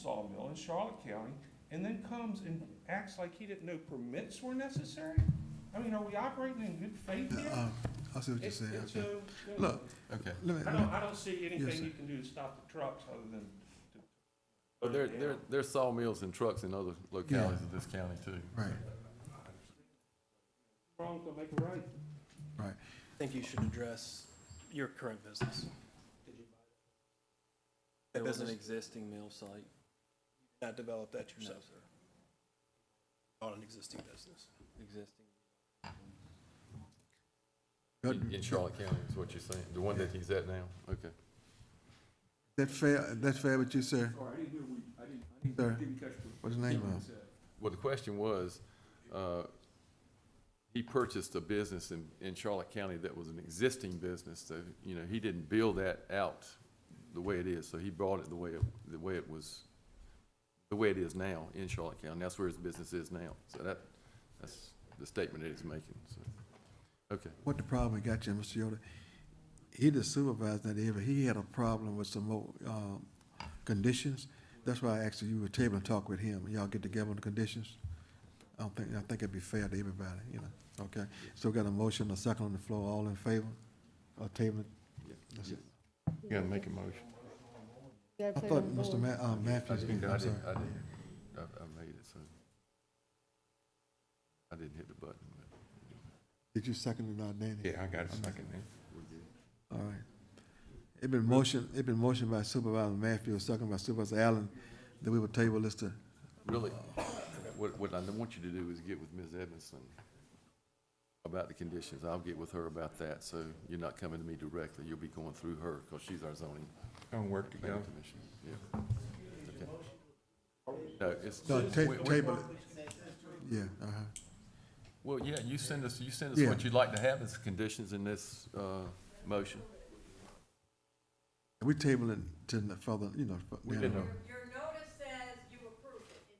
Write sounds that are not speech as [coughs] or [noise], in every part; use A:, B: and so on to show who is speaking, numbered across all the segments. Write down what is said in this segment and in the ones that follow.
A: sawmill in Charlotte County and then comes and acts like he didn't know permits were necessary? I mean, are we operating in good faith here?
B: Uh, I see what
A: It-
B: you're saying.
A: it's,
B: okay.
A: uh,
B: Look,
C: Okay.
B: Let me,
A: I
B: let me-
A: don't, I don't see
B: sir.
A: anything you can do to stop the trucks other than. to-
C: But Oh, there, there, there's sawmills and trucks in other localities
B: Yeah.
C: of this county too.
B: right,
A: Wrong to make a right.
B: right.
D: I think you should address your current business.
E: It
D: That
E: was an
D: business,
E: existing mill site.
D: not develop that yourself,
E: sir.
D: on an existing business.
E: Existing.
B: That-
C: In Charlotte County is what you're saying, the one that he's at now? Okay.
B: That fair, that fair with you, sir?
F: Sorry, I didn't hear what, you- I didn't, I didn't-
B: Sir.
F: didn't catch what
B: What's the name Uh,
F: you
B: of?
F: said.
C: Well, the question was, uh, he purchased a business in, in Charlotte County that was an existing business, so, you know, he didn't build that out the way it is, so he bought it the way, it the way it was, the way it is now in Charlotte County, that's where his business is now. So that, that's the statement that he's making, so, okay.
B: What the problem we got you, Mr. Yoder? He the supervisor that area, he had a problem with some more, um, conditions. That's why I asked if you would table and talk with him. Y'all get together on the conditions? I don't think, I think it'd be fair to everybody, you know, okay? So we got a motion, a second on the floor, all in favor? Or table?
C: Yeah.
B: That's it.
C: You gotta make a motion.
B: I thought Mr. Ma, uh,
C: I
B: Matthews,
C: didn't, I
B: I'm sorry.
C: didn't, I, didn't- I I made it, so. I didn't hit the button, but.
B: Did you second it, not Danny?
C: I got a second then.
B: All right. It been motion, it been motioned by Supervisor Matthews, second by Supervisor Allen, that we would table this to,
C: Really, what, what I want you to do is get with Ms. Edmondson about the conditions. I'll get with her about that, so you're not coming to me directly. You'll be going through her, because she's our zoning.
G: Don't work
C: planning
G: together.
C: commission. Yeah. Okay. No, it's,
B: no,
C: we-
B: ta-
C: we-
B: table it. Yeah, uh-huh.
C: well, yeah, you send us, you send us
B: Yeah.
C: what you'd like to have as conditions in this, uh, motion.
B: We table it to the further, you know, fu-
C: We
B: down the
C: didn't-
B: road.
H: Your notice says you approve it.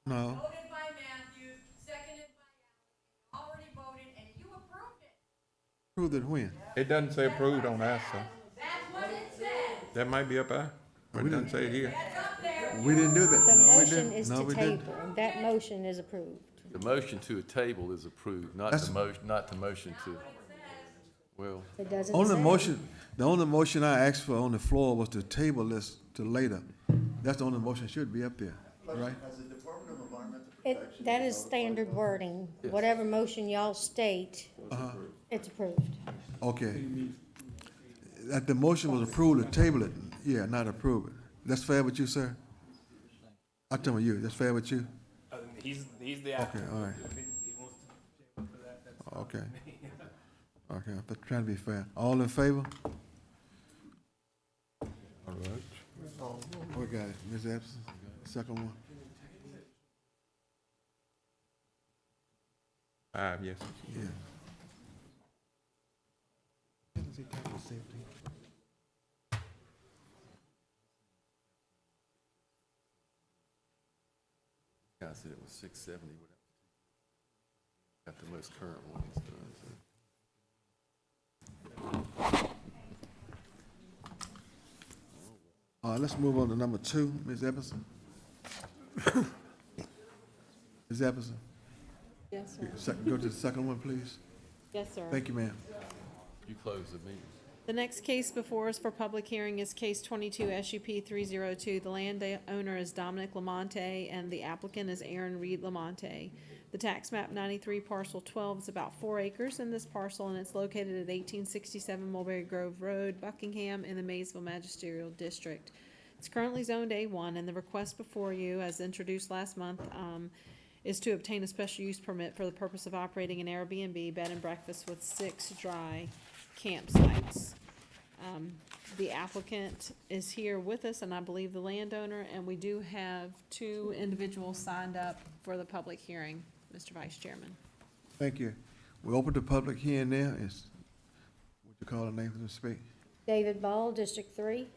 H: It's
B: No,
H: voted by Matthews, seconded by Allen, already voted, and you approved it.
B: proved it when?
G: It doesn't say approved on that, so
H: That's what it says.
G: that might be up there, but it doesn't say it here.
H: That's up there.
B: We didn't do that.
I: The
B: No, we
I: motion
B: didn't.
I: is
B: No,
I: to
B: we didn't.
I: table, that motion is approved.
C: The motion to a table is approved, not
B: That's-
C: the mo, not the motion to, well,
I: It doesn't
B: Only
I: say-
B: motion, the only motion I asked for on the floor was to table this to later. That's the only motion should be up there, right?
I: It, that is standard wording. Whatever motion y'all state,
B: Uh-huh.
I: it's approved.
B: Okay. That the motion was approved to table it, yeah, not approve it. That's fair with you, sir? I tell you, that's fair with you?
D: I mean, Uh, he's, he's the
B: Okay,
D: applicant.
B: all right, okay.
D: [laughs]
B: Okay, I'm trying to be fair. All in favor?
G: All right.
B: We got it, Ms. Epson, second one.
G: Five, yes.
B: Yeah.
C: I said it was six seventy, whatever. Got the most current one, it's done, so.
B: All right, let's move on to number two, Ms. Epperson. [coughs] Ms. Epperson,
I: Yes, sir.
B: sec- go to the second one, please.
J: Yes, sir.
B: Thank you, ma'am.
C: You close the meeting.
J: The next case before us for public hearing is case twenty-two SUP three zero two. The landowner is Dominic Lamonte and the applicant is Aaron Reed Lamonte. The tax map ninety-three parcel twelve is about four acres in this parcel and it's located at eighteen sixty-seven Mulberry Grove Road, Buckingham, in the Maysville Magisterial District. It's currently zoned A one and the request before you, as introduced last month, um, is to obtain a special use permit for the purpose of operating an Airbnb bed and breakfast with six dry campsites. Um, the applicant is here with us, and I believe the landowner, and we do have two individuals signed up for the public hearing, Mr. Vice Chairman.
B: Thank you. We opened the public hearing now. It's, would you call the name for the speak?
I: David Ball, District Three.